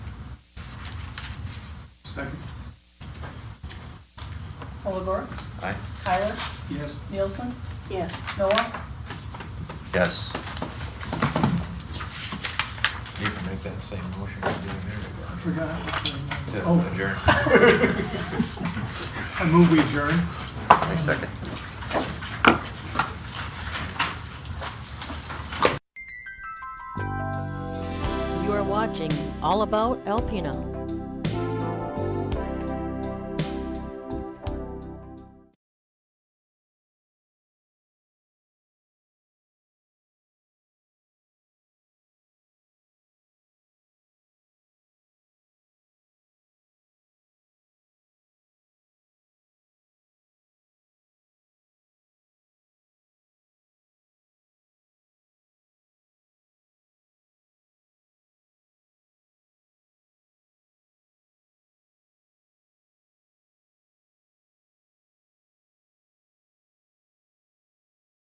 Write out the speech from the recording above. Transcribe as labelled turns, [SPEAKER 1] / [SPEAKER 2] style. [SPEAKER 1] Second.
[SPEAKER 2] Olivera?
[SPEAKER 3] Aye.
[SPEAKER 2] Kyler?
[SPEAKER 1] Yes.
[SPEAKER 2] Nielsen?
[SPEAKER 4] Yes.
[SPEAKER 2] Noah?
[SPEAKER 3] Yes. You can make that same motion you did a minute
[SPEAKER 1] I forgot.
[SPEAKER 3] ago.
[SPEAKER 1] Oh,
[SPEAKER 3] adjourn.
[SPEAKER 1] I move we adjourn.
[SPEAKER 3] I second.
[SPEAKER 4] You are watching All About Alpino.